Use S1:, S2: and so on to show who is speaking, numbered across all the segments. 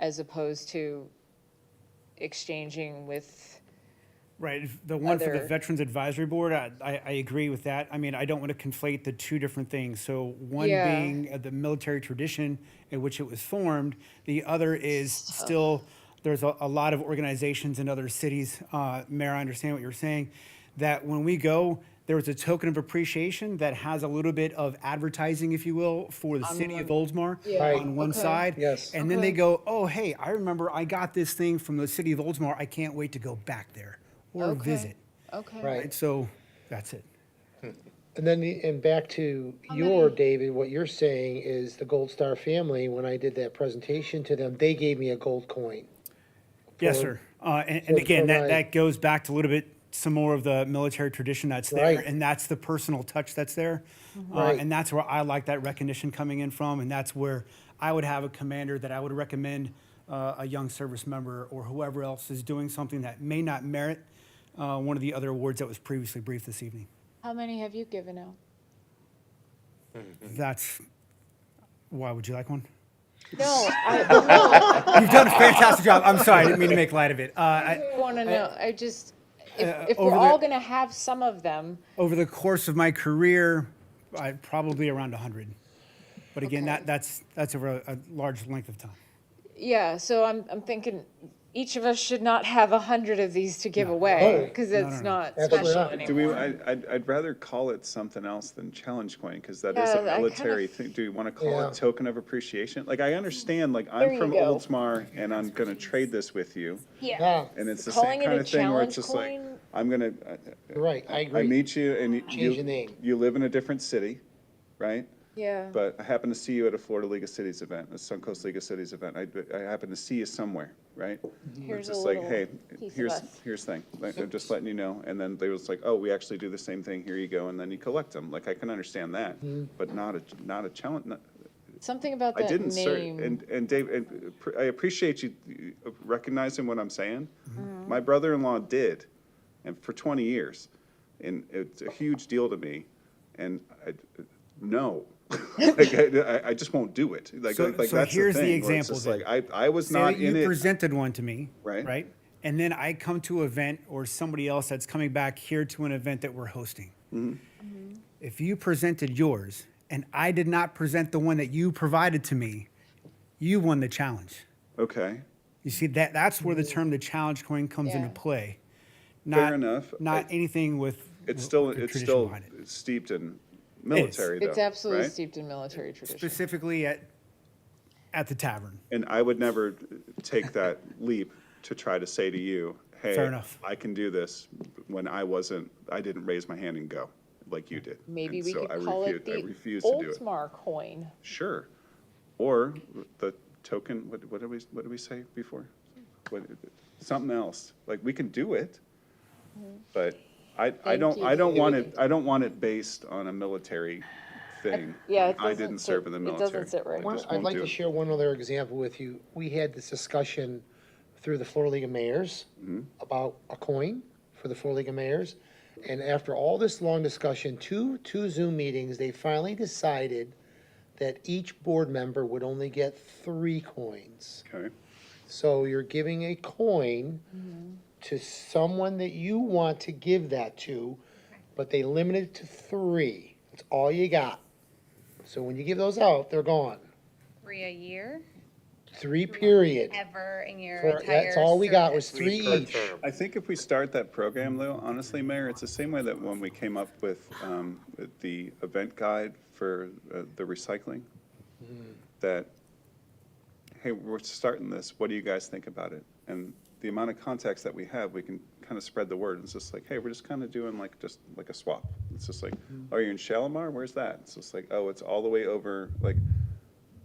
S1: as opposed to exchanging with,
S2: Right, if the one for the
S1: other-
S2: Veterans Advisory Board, I, I, I agree with that. I mean, I don't want to conflate the two different things. So one
S1: Yeah.
S2: being uh, the military tradition in which it was formed, the other is
S1: uh-huh.
S2: still, there's a, a lot of organizations in other cities, uh, Mayor, I understand what you're saying, that when we go, there was a token of appreciation that has a little bit of advertising, if you will, for the city of Oldsmar
S1: Right.
S2: on one
S1: Okay.
S2: side.
S3: Yes.
S2: And then they go, oh, hey, I remember I got this thing from the city of Oldsmar. I can't wait to go back there or
S1: Okay.
S2: visit.
S1: okay.
S3: Right.
S2: Right. So that's it.
S3: And then, the- and back to your, David, what you're saying is the Gold Star family, when I did that presentation to them, they gave me a gold coin.
S2: Yes,
S3: For-
S2: sir. Uh, and, and
S3: for-
S2: again,
S3: for
S2: that,
S3: my-
S2: that goes back to a little bit some more of the military tradition that's there,
S3: Right.
S2: and that's the personal touch that's there. Uh,
S3: Right.
S2: and that's where I like that recognition coming in from, and that's where I would have a commander that I would recommend uh, a young service member or whoever else is doing something that may not merit uh, one of the other awards that was previously briefed this evening.
S1: How many have you given out?
S2: That's why would you like one?
S1: No, I
S2: You've done a fantastic job. I'm sorry, I didn't mean to make light of it. Uh, I,
S1: want to know, I just,
S2: Uh,
S1: if, if we're
S2: over
S1: all
S2: the-
S1: going to have some of them,
S2: over the course of my career, I probably around 100. But again, that, that's that's over a, a large length of time.
S1: yeah, so I'm, I'm thinking each of us should not have a hundred of these to give away, because it's not
S3: Absolutely
S1: special
S3: not.
S4: Do we,
S1: anymore.
S4: I, I'd, I'd rather call it something else than challenge coin, because that is
S1: Yeah,
S4: a
S1: I kind of-
S4: military thing. Do we want to call
S3: Yeah.
S4: it token of appreciation? Like, I understand, like,
S1: There
S4: I'm
S1: you
S4: from
S1: go.
S4: Oldsmar, and I'm gonna trade this with you,
S3: Yeah,
S4: and it's the
S1: Calling
S4: same
S1: it
S4: kind
S1: a
S4: of thing where it's just like,
S1: challenge coin?
S4: I'm gonna, I-
S3: you're right, I
S4: I
S3: agree.
S4: meet you, and you-
S3: Change the
S4: you,
S3: name.
S4: you live in a different city, right?
S1: Yeah.
S4: But I happen to see you at a Florida League of Cities event, a Suncoast League of Cities event. I, I happen to see you somewhere, right? We're
S1: Mm-hmm. Here's a
S4: just like,
S1: little
S4: hey,
S1: piece of
S4: here's,
S1: us.
S4: here's thing, like, I'm just letting you know. And then they was like, oh, we actually do the same thing, here you go, and then you collect them. Like, I can understand that,
S1: Mm-hmm.
S4: but not a, not a challenge, not-
S1: Something about
S4: I
S1: that
S4: didn't, sir.
S1: name.
S4: And, and Dave, and uh, pr- I appreciate you uh, recognizing what I'm saying.
S1: Mm-hmm.
S4: My brother-in-law did, and for 20 years, and it's a huge deal to me, and I, no. Like, I, I- I just won't do it. Like,
S2: So-
S4: like that's
S2: so
S4: the
S2: here's the
S4: thing, where it's
S2: example
S4: just
S2: then.
S4: Like, I, I was
S2: Say
S4: not
S2: that you
S4: in it.
S2: presented one to me,
S4: Right.
S2: Right. And then I come to an event or somebody else that's coming back here to an event that we're hosting.
S4: Mm-hmm.
S2: If you presented yours and I did not present the one that you provided to me, you won the challenge.
S4: Okay,
S2: You see that that's where the term the challenge coin comes into
S1: Yeah.
S2: play. Not,
S4: Fair enough.
S2: Not
S4: I-
S2: anything with
S4: it's
S2: with
S4: still,
S2: the
S4: it's
S2: tradition
S4: still
S2: behind it.
S4: steeped in military though,
S1: It's absolutely
S4: right?
S1: steeped in military tradition.
S2: specifically at at the tavern.
S4: And I would never take that leap to try to say to you, hey,
S2: Fair enough.
S4: I can do this when I wasn't, I didn't raise my hand and go like you did.
S1: Maybe
S4: And
S1: we
S4: so
S1: could
S4: I
S1: call it
S4: refu- I
S1: the
S4: refuse to do it.
S1: Oldsmar coin.
S4: Sure. Or the token, what, what did we, what did we say before? What, something else. Like, we can do it. But I, I
S1: Thank
S4: don't,
S1: you.
S4: I don't
S1: Yeah,
S4: want
S1: we
S4: it, I don't want it based on a military thing.
S1: Yeah, it
S4: I
S1: doesn't
S4: didn't
S1: sit-
S4: serve in the
S1: it doesn't
S4: military.
S1: sit right.
S4: I
S1: Well,
S4: just
S3: I'd
S4: won't
S3: like
S4: do
S3: to
S4: it.
S3: share one other example with you. We had this discussion through the Florida League of Mayors about a coin for the Florida League of Mayors. And after all this long discussion, two, two Zoom meetings, they finally decided that each board member would only get three coins.
S4: Okay.
S3: So you're giving a coin to someone that you want to give that to, but they limit it to three. That's all you got. So when you give those out, they're gone.
S5: Three a year,
S3: Three period.
S5: ever in your
S3: For-
S5: entire.
S3: That's all we got was
S5: service.
S3: three each.
S4: I think if we start that program, though, honestly, Mayor, it's the same way that when we came up with um, the event guide for uh, the recycling, that, hey, we're starting this, what do you guys think about it? And the amount of contacts that we have, we can kind of spread the word. It's just like, hey, we're just kind of doing like, just like a swap. It's just like, are you in Shalimar? Where's that? It's just like, oh, it's all the way over, like,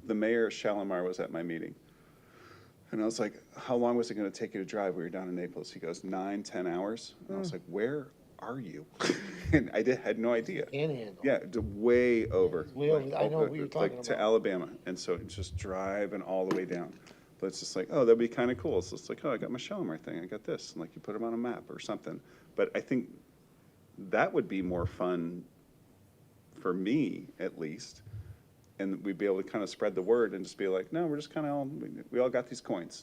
S4: the mayor of Shalimar was at my meeting. And I was like, how long was it gonna take you to drive? We were down in Naples. He goes, nine, ten hours. And I was like, where are you? And I did, had no idea.
S3: Panhandle.
S4: Yeah, d- way over.
S3: Way over.
S4: like,
S3: I know what you're
S4: like,
S3: talking
S4: To
S3: about.
S4: Alabama. And so it's just driving all the way down. But it's just like, oh, that'd be kinda cool. So it's like, oh, I got my Shalimar thing. I got this. And like, you put them on a map or something. But I think that would be more fun for me at least and we'd be able to kind of spread the word and just be like, no, we're just kind of all, we all got these coins.